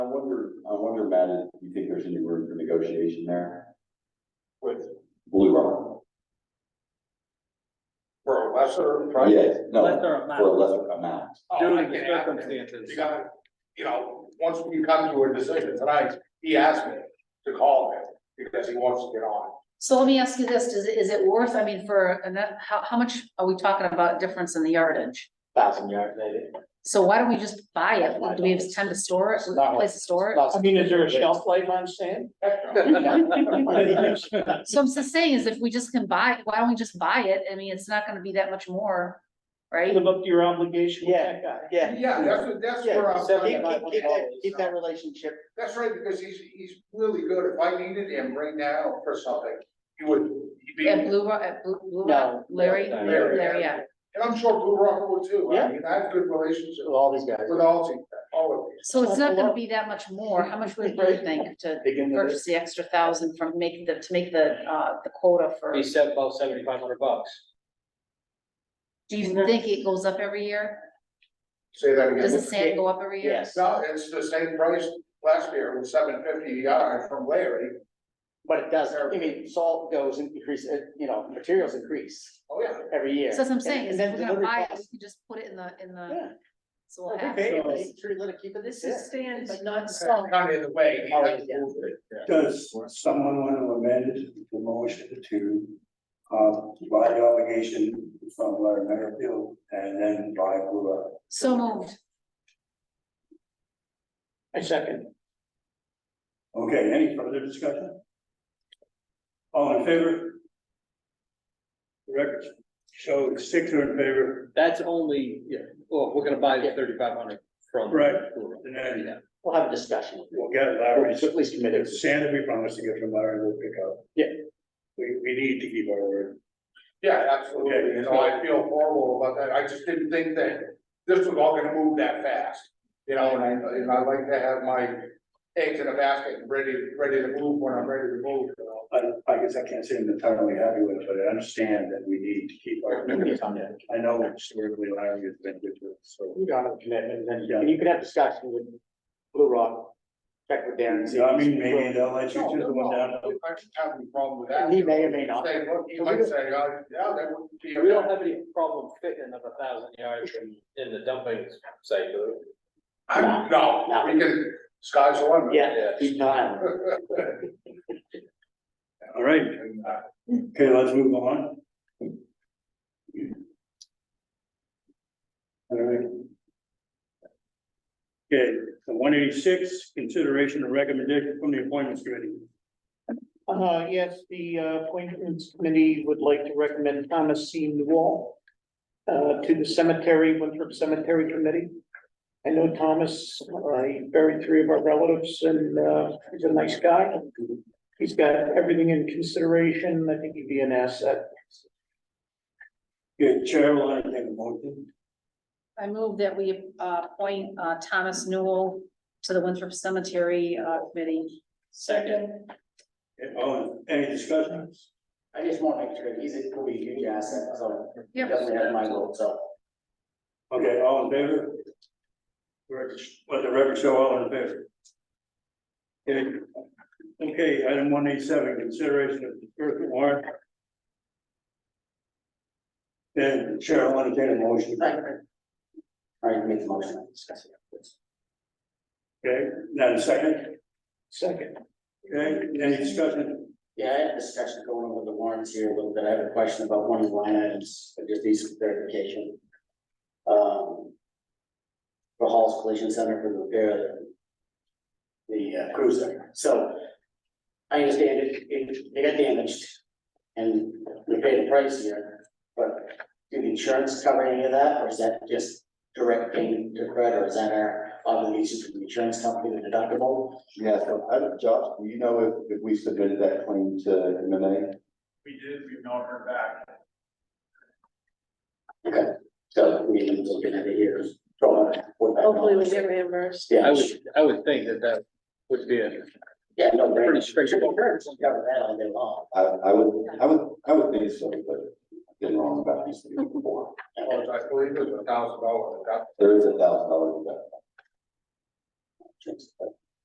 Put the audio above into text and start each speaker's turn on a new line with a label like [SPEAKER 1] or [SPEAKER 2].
[SPEAKER 1] talking about is, do you think there's any room for negotiation there?
[SPEAKER 2] with,
[SPEAKER 1] Blue Run,
[SPEAKER 2] for a lesser price.
[SPEAKER 1] yes, no,
[SPEAKER 3] Lesser
[SPEAKER 1] for a
[SPEAKER 3] amount,
[SPEAKER 1] lesser amount.
[SPEAKER 2] Oh,
[SPEAKER 3] due to
[SPEAKER 2] I get
[SPEAKER 3] the
[SPEAKER 2] it.
[SPEAKER 3] circumstances.
[SPEAKER 2] You gotta, you know, once we come to a decision tonight, he asked me to call him because he wants to get on.
[SPEAKER 4] So let me ask you this, is, it is it worth, I mean, for, and that, how, how much are we talking about difference in the yardage?
[SPEAKER 5] thousand yards maybe.
[SPEAKER 4] So why don't we just buy it? Do we have time to store it,
[SPEAKER 5] Not
[SPEAKER 4] place to store it?
[SPEAKER 5] I mean, is there a shelf life on sand?
[SPEAKER 4] So I'm just saying is if we just can buy, why don't we just buy it? I mean, it's not gonna be that much more, right?
[SPEAKER 6] live up to your obligation with that guy.
[SPEAKER 5] Yeah.
[SPEAKER 2] Yeah, that's, what- that's where
[SPEAKER 5] Yeah,
[SPEAKER 2] I'm.
[SPEAKER 5] so keep,
[SPEAKER 2] coming
[SPEAKER 5] keep,
[SPEAKER 2] from.
[SPEAKER 5] keep that, keep that relationship.
[SPEAKER 2] That's right, because he's, he's really good. If I needed him right now for something, he would, he'd be,
[SPEAKER 4] At
[SPEAKER 2] and
[SPEAKER 4] Blue Rock, at Blue, Blue Rock,
[SPEAKER 5] No.
[SPEAKER 4] Larry,
[SPEAKER 5] No.
[SPEAKER 4] Larry, Larry, yeah.
[SPEAKER 2] I'm sure Blue Rock would too.
[SPEAKER 5] Yeah.
[SPEAKER 2] I mean, I have good relationships
[SPEAKER 5] With all these guys.
[SPEAKER 2] with all these, all of these.
[SPEAKER 4] So it's not gonna be that much more. How much would you think to
[SPEAKER 5] Begin with
[SPEAKER 4] purchase the extra thousand from make the, to make the, uh, the quota for?
[SPEAKER 7] He said about seventy-five hundred bucks.
[SPEAKER 4] Do you think it goes up every year?
[SPEAKER 2] Say that again.
[SPEAKER 4] Does the sand go up every year?
[SPEAKER 5] Yes,
[SPEAKER 2] No, it's the same price last year with seven fifty a yard from Larry.
[SPEAKER 5] but it does, I mean, salt goes and increase, uh, you know, materials increase
[SPEAKER 2] Oh, yeah.
[SPEAKER 5] every year.
[SPEAKER 4] So that's what I'm saying,
[SPEAKER 5] And-
[SPEAKER 4] is
[SPEAKER 5] and
[SPEAKER 4] if
[SPEAKER 5] then
[SPEAKER 4] we're gonna
[SPEAKER 5] delivery
[SPEAKER 4] buy it, we
[SPEAKER 5] costs.
[SPEAKER 4] can just put it in the, in the,
[SPEAKER 5] Yeah.
[SPEAKER 4] so
[SPEAKER 5] Well,
[SPEAKER 4] we'll
[SPEAKER 5] we
[SPEAKER 4] have.
[SPEAKER 5] pay it,
[SPEAKER 4] those.
[SPEAKER 5] it's true, let it keep it this year.
[SPEAKER 3] stand,
[SPEAKER 4] but
[SPEAKER 3] not
[SPEAKER 2] Kind of the way. he has to move it.
[SPEAKER 8] Does someone want to amend the motion to, uh, buy the obligation from Larry Merrifield and then buy Blue Rock?
[SPEAKER 4] So moved.
[SPEAKER 6] I second.
[SPEAKER 8] Okay, any further discussion? All in favor? The Record shows six are in favor,
[SPEAKER 7] That's only, yeah, well, we're gonna buy the thirty-five hundred from.
[SPEAKER 8] Right.
[SPEAKER 7] Blue
[SPEAKER 8] and
[SPEAKER 7] Rock.
[SPEAKER 8] then
[SPEAKER 7] Yeah.
[SPEAKER 5] We'll have a discussion.
[SPEAKER 8] we'll get
[SPEAKER 5] Or
[SPEAKER 8] Larry's,
[SPEAKER 5] it's at least committed.
[SPEAKER 8] sand that we promised to get from Larry, we'll pick up.
[SPEAKER 5] Yeah.
[SPEAKER 8] We, we need to keep our word.
[SPEAKER 2] Yeah, absolutely. You know, I feel horrible about that. I just didn't think that this was all gonna move that fast. You know, and I, and I like to have my eggs in a basket and ready, ready to move when I'm ready to move, you know.
[SPEAKER 8] I, I guess I can't say I'm entirely happy with it, but I understand that we need to keep our. I know historically Larry has been good to us, so.
[SPEAKER 5] You got a commitment, and then, and you can have discussion with Blue Rock, check with Darren. and see-
[SPEAKER 8] I mean, maybe they'll let you
[SPEAKER 2] No,
[SPEAKER 8] choose the one down.
[SPEAKER 2] no, I don't have any problem with that.
[SPEAKER 5] And he may or may not.
[SPEAKER 2] Say, look, he might say, oh, yeah, that would be.
[SPEAKER 7] We don't have any problem fitting another thousand yards in, in the dumping site, do
[SPEAKER 2] I'm- No,
[SPEAKER 5] No.
[SPEAKER 2] we can, sky's the limit.
[SPEAKER 7] we?
[SPEAKER 5] Yeah, keep time.
[SPEAKER 8] All right,
[SPEAKER 2] And, uh,
[SPEAKER 8] okay, let's move on. All right. Okay, one eighty-six, consideration and recommendation from the appointments committee.
[SPEAKER 6] Uh, yes, the uh, appointments committee would like to recommend Thomas C. Newell uh, to the cemetery, Winthrop Cemetery Committee. I know Thomas, uh, he buried three of our relatives and, uh, he's a nice guy. He's got everything in consideration. I think he'd be an asset.
[SPEAKER 8] Good, Chair, will entertain a motion.
[SPEAKER 4] I move that we, uh, appoint, uh, Thomas Newell to the Winthrop Cemetery, uh, committee.
[SPEAKER 5] Second.
[SPEAKER 8] Oh, any discussions?
[SPEAKER 5] I just want to make sure he's a, could be a huge asset, so.
[SPEAKER 4] Yep.
[SPEAKER 5] Doesn't have my vote, so.
[SPEAKER 8] Okay, all in favor? Record- Let the record show all in favor. Okay, Okay, item one eight seven, consideration of first warrant. Then Chair, I want to take a motion,
[SPEAKER 5] All right, make the motion, discuss it.
[SPEAKER 8] okay, then second,
[SPEAKER 6] Second.
[SPEAKER 8] okay, any discussion?
[SPEAKER 5] Yeah, I had a discussion going over the warrants here a little bit. I have a question about one of the line items, but just needs some clarification. Um. For Hall's Collision Center for the repair of the. The uh, cruiser, so. I understand it, it, it got damaged. And we paid a price here, but do the insurance cover any of that, or is that just direct payment to credit, or is that our obligation to the insurance company, the deductible?
[SPEAKER 1] Yeah, so, uh, Josh, do you know if, if we submitted that claim to MMA?
[SPEAKER 2] We did, we've not heard back.
[SPEAKER 5] So we can look at it here, throw it. put that on.
[SPEAKER 9] Hopefully we get reimbursed.
[SPEAKER 5] Yeah,
[SPEAKER 7] I would, I would think that that would be a
[SPEAKER 5] yeah, no,
[SPEAKER 7] pretty
[SPEAKER 5] pretty.
[SPEAKER 7] straightforward.
[SPEAKER 5] Cover that all day long.
[SPEAKER 1] I, I would, I would, I would think so, but I've been wrong about these things before.
[SPEAKER 2] Well, I believe it was a thousand dollars.
[SPEAKER 1] There is a thousand dollars in that.